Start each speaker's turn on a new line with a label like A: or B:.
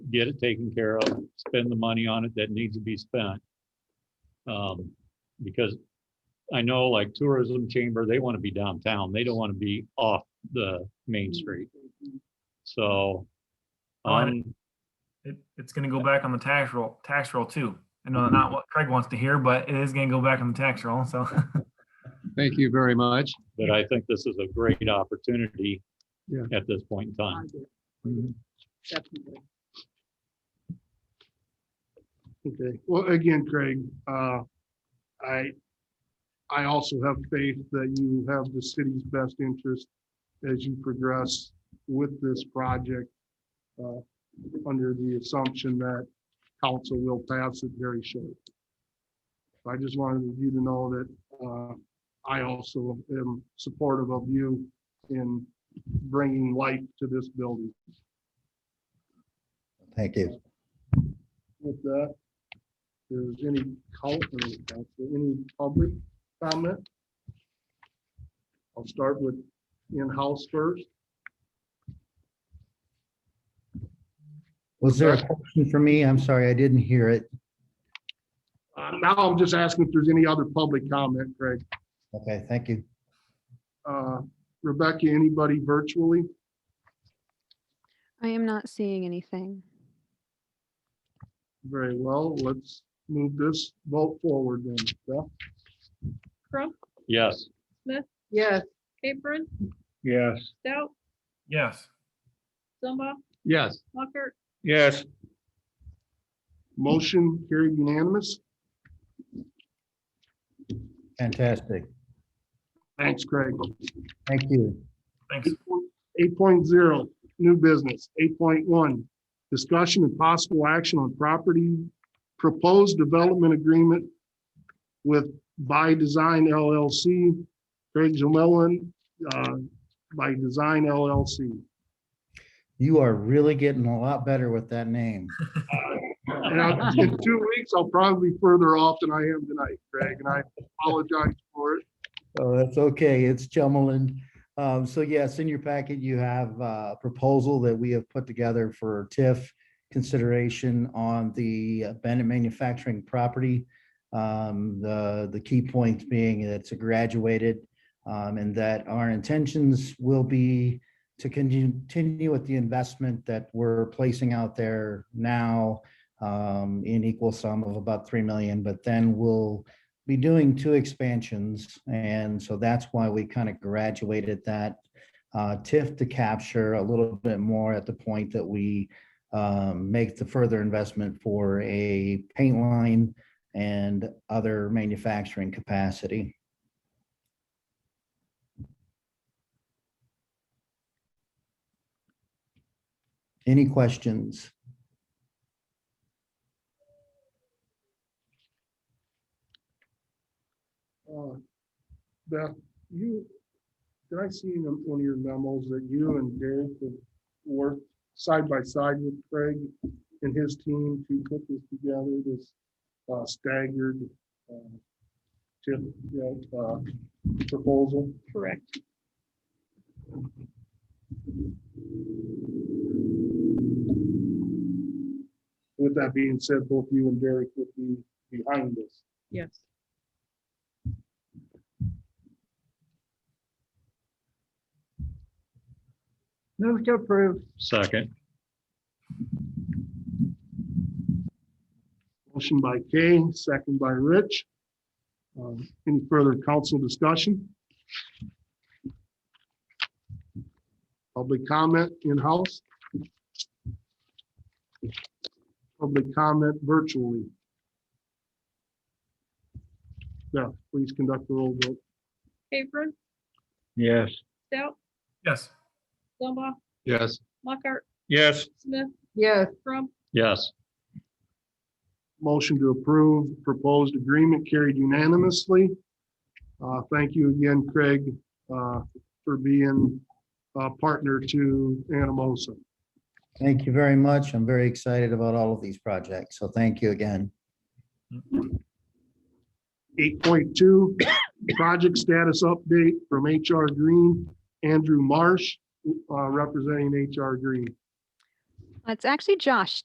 A: get it taken care of, spend the money on it that needs to be spent. Um, because I know like tourism chamber, they want to be downtown. They don't want to be off the main street. So.
B: Oh,
C: On it.
A: Um,
C: It, it's gonna go back on the tax roll, tax roll too. I know not what Craig wants to hear, but it is gonna go back on the tax roll, so.
B: Thank you very much.
A: but I think this is a great opportunity
B: Yeah.
A: at this point in time.
D: Definitely.
B: Okay,
E: Well, again, Craig, uh, I, I also have faith that you have the city's best interest as you progress with this project, uh, under the assumption that council will pass it very shortly. I just wanted you to know that, uh, I also am supportive of you in bringing life to this building.
F: Thank you.
E: With that, there's any count, I mean, council, any public comment? I'll start with in-house first.
F: Was there a question for me? I'm sorry, I didn't hear it.
E: Uh, Now I'm just asking if there's any other public comment, Greg.
F: Okay, thank you.
E: Uh, Rebecca, anybody virtually?
G: I am not seeing anything.
E: Very well, let's move this vote forward then. Beth?
D: Crump,
A: Yes,
D: yes. Capron,
B: yes.
D: Stout,
C: Yes,
D: Zumba,
B: Yes.
D: Mockert,
B: Yes.
E: Motion carried unanimous.
F: Fantastic.
E: Thanks, Craig.
F: Thank you.
C: thanks.
E: Eight point zero, new business. Eight point one, discussion and possible action on property, proposed development agreement with By Design LLC, Craig Jamillon, uh, By Design LLC.
F: You are really getting a lot better with that name.
E: And I- in two weeks, I'll probably be further off than I am tonight, Craig, and I apologize for it.
F: Oh, that's okay. It's Chumelland. Um, so yes, in your packet, you have uh, a proposal that we have put together for TIF consideration on the Bennett manufacturing property. Um, the, the key points being that it's a graduated um, and that our intentions will be to continue, continue with the investment that we're placing out there now um, in equal sum of about 3 million, but then we'll be doing two expansions, and so that's why we kind of graduated that uh, TIF to capture a little bit more at the point that we um, make the further investment for a paint line and other manufacturing capacity. Any questions?
E: Uh, Beth, you, did I see in one of your memos that you and Derek have worked side by side with Craig and his team to put this together, this uh, staggered uh, tip, you know, uh, proposal?
D: correct.
E: With that being said, both you and Derek would be behind this.
D: Yes. Move to approve.
A: second,
E: Motion by Kay, second by Rich. Um, Any further council discussion? Public comment in-house? Public comment virtually? Beth, please conduct the roll vote.
D: Capron,
B: Yes.
D: Stout,
C: Yes,
D: Zumba,
B: Yes.
D: Mockart,
B: Yes.
D: Smith. Yes. Crump,
A: yes,
E: Motion to approve proposed agreement carried unanimously. Uh, Thank you again, Craig, uh, for being a partner to Anamosa.
F: Thank you very much. I'm very excited about all of these projects, so thank you again.
E: Eight point two, project status update from HR Green, Andrew Marsh, uh, representing HR Green.
G: It's actually Josh